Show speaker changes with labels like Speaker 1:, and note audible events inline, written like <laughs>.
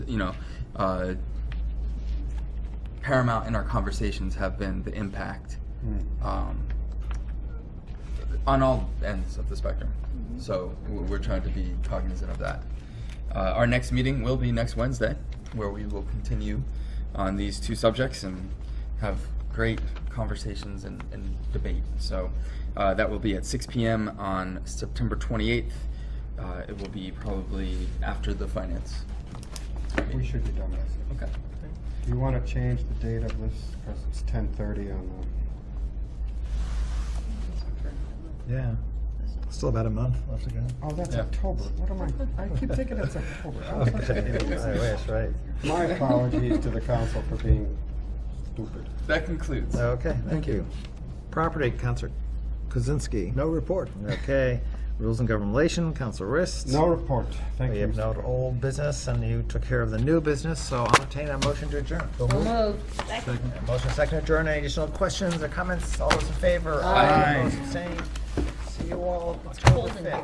Speaker 1: you know, uh, paramount in our conversations have been the impact um, on all ends of the spectrum. So w- we're trying to be cognizant of that. Uh, our next meeting will be next Wednesday, where we will continue on these two subjects and have great conversations and, and debate. So uh, that will be at 6 p.m. on September 28th. Uh, it will be probably after the finance.
Speaker 2: We should be done this.
Speaker 1: Okay.
Speaker 2: Do you want to change the date of this, because it's ten thirty on
Speaker 3: Yeah. Still about a month left to
Speaker 2: <laughs>
Speaker 3: go.
Speaker 2: the, oh, that's
Speaker 1: Yeah.
Speaker 2: October, what am I, I keep thinking it's
Speaker 3: <laughs>
Speaker 2: October. I was
Speaker 3: Okay.
Speaker 2: thinking it was-
Speaker 3: I wish, right.
Speaker 2: My apologies to the council for being stupid.
Speaker 1: That concludes.
Speaker 3: Okay, thank you. Property, Counselor Kozinski.
Speaker 4: No report.
Speaker 3: Okay. Rules and Government Relation, Counselor Rist.
Speaker 2: No report, thank
Speaker 3: We
Speaker 2: you.
Speaker 3: have no
Speaker 2: Mr.
Speaker 3: old business, and you took care of the new business, so I'll entertain a motion to adjourn. A Motion second to adjourn. Any additional questions or comments? All those in favor?
Speaker 1: Aye.
Speaker 3: Opposed, abstained? See you all October 5th.